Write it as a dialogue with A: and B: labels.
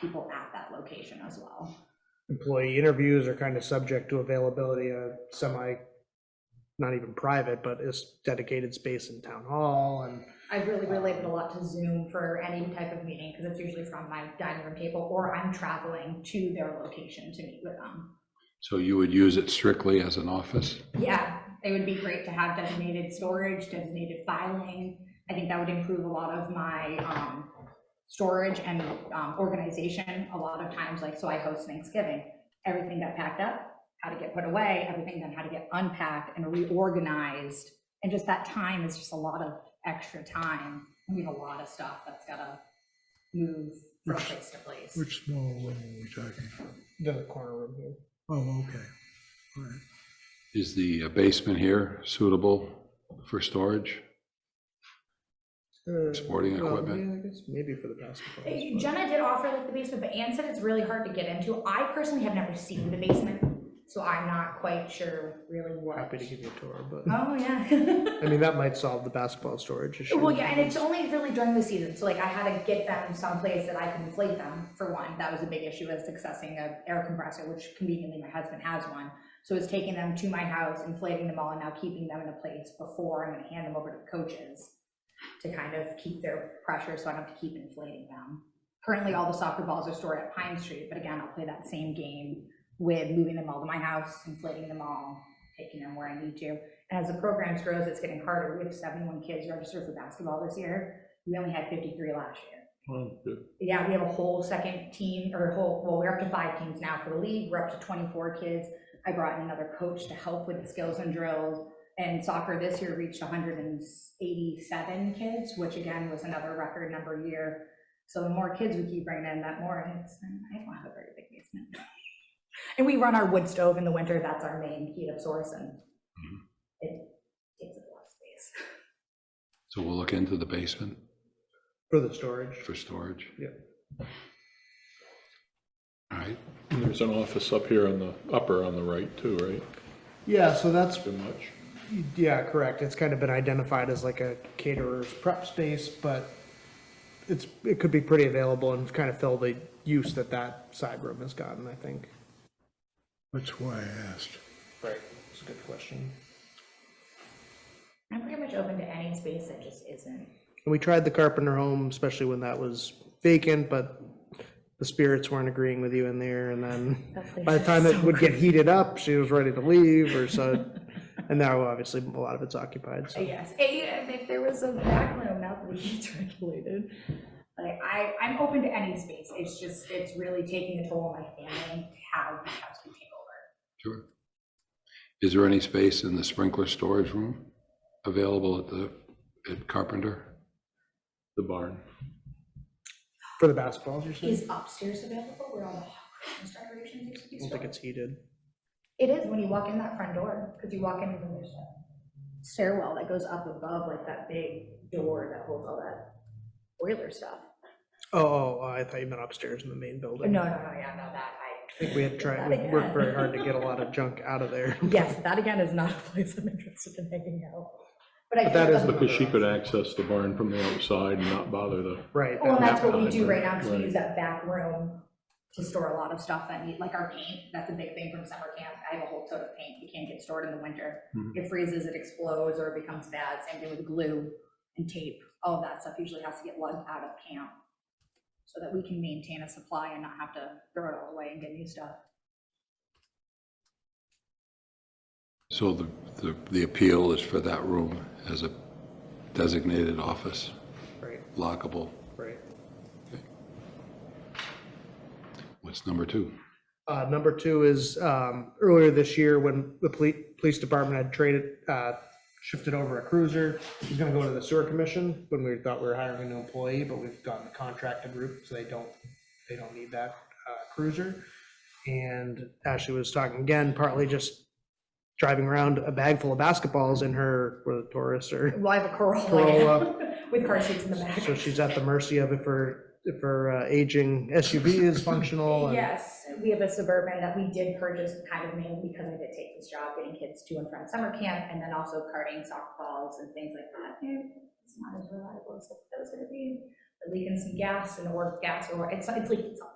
A: people at that location as well.
B: employee interviews are kind of subject to availability of semi, not even private, but is dedicated space in town hall and
A: I really relate it a lot to Zoom for any type of meeting, because it's usually from my dining room table, or I'm traveling to their location to meet with them.
C: So you would use it strictly as an office?
A: Yeah, it would be great to have designated storage, designated filing. I think that would improve a lot of my um, storage and um, organization. A lot of times, like, so I host Thanksgiving, everything got packed up, how to get put away, everything then how to get unpacked and reorganized. And just that time is just a lot of extra time. We have a lot of stuff that's gotta move from place to place.
D: Which small room are we talking?
B: the corner room here.
D: Oh, okay, all right.
C: Is the basement here suitable for storage?
B: Uh,
C: Sporting
B: well,
C: equipment.
B: yeah, I guess Maybe for the basketball.
A: Hey,
B: but-
A: Jenna did offer like the basement, but Ann said it's really hard to get into. I personally have never seen the basement, so I'm not quite sure really what.
B: Happy to give you a tour, but,
A: Oh, yeah.
B: I mean, that might solve the basketball storage issue.
A: Well, yeah, and it's only really during the season, so like I had to get them someplace that I can inflate them, for one. That was a big issue is accessing an air compressor, which conveniently my husband has one. So it's taking them to my house, inflating them all, and now keeping them in a place before I'm gonna hand them over to the coaches to kind of keep their pressure, so I don't have to keep inflating them. Currently, all the soccer balls are stored at Pine Street, but again, I'll play that same game with moving them all to my house, inflating them all, taking them where I need to. And as the program grows, it's getting harder. We have 71 kids registered for basketball this year. We only had 53 last year.
D: Well, good.
A: Yeah, we have a whole second team, or a whole, well, we're up to five teams now for the league. We're up to 24 kids. I brought in another coach to help with the skills and drills. And soccer this year reached 187 kids, which again was another record number year. So the more kids we keep bringing in, that more it's, I don't have a very big basement. And we run our wood stove in the winter. That's our main heat up source and
C: Mhm.
A: it takes up a lot of space.
C: So we'll look into the basement
B: For the storage.
C: for storage?
B: Yeah.
C: All right,
E: And There's an office up here on the, upper on the right too, right?
B: Yeah, so that's
E: Too much.
B: Yeah, correct. It's kind of been identified as like a caterer's prep space, but it's, it could be pretty available and kind of fill the use that that side room has gotten, I think.
D: That's why I asked.
B: Right, that's a good question.
A: I'm pretty much open to any space that just isn't
B: And we tried the Carpenter home, especially when that was vacant, but the spirits weren't agreeing with you in there, and then by the time it would get heated up, she was ready to leave, or so, and now obviously a lot of it's occupied, so.
A: Yes, and if there was a back room, now that it's regulated. Like, I, I'm open to any space, it's just, it's really taking a toll on my family, how the house can take over.
C: sure. Is there any space in the sprinkler storage room available at the, at Carpenter?
E: The barn.
B: For the basketballs, you're saying?
A: Is upstairs available where all the Christmas decorations used to be
B: I don't think
A: stored?
B: it's heated.
A: It is when you walk in that front door, because you walk in and there's a stairwell that goes up above, like that big door that holds all that boiler stuff.
B: Oh, oh, I thought you meant upstairs in the main
A: No,
B: building.
A: no, no, yeah, no, that, I.
B: I think we had tried, we worked very hard to get a lot of junk out of there.
A: Yes, that again is not a place I'm interested in hanging out. But I
B: But
A: think
B: that
A: the
B: is
A: whole-
E: Because she could access the barn from the outside and not bother the,
B: Right.
A: Well, and
B: that-
A: that's what we do right now, because we
E: Right.
A: use that back room to store a lot of stuff that need, like our paint, that's a big thing from summer camp. I have a whole tote of paint, you can't get stored in the winter.
B: Mm-hmm.
E: Mhm.
A: It freezes, it explodes, or it becomes bad, same thing with glue and tape, all of that stuff usually has to get lugged out of camp. So that we can maintain a supply and not have to throw it all away and get new stuff.
C: So the, the, the appeal is for that room as a designated office,
B: Right,
C: lockable.
B: right.
C: What's number two?
B: Uh, number two is, um, earlier this year when the police, police department had traded, uh, shifted over a cruiser. It was gonna go to the sewer commission when we thought we were hiring a new employee, but we've gotten the contracted route, so they don't, they don't need that, uh, cruiser. And Ashley was talking again, partly just driving around a bag full of basketballs in her, with a Taurus or
A: Well, I have a Corolla yeah,
B: Corolla.
A: with car seats in the back.
B: So she's at the mercy of if her, if her uh, aging SUV is functional. and-
A: Yes, we have a Suburban that we did purchase kind of mainly because I did take this job, getting kids to and from summer camp, and then also carting soccer balls and things like that. And It's not as reliable as it was gonna be, but leaking some gas and or gas or, it's, it's leaking something.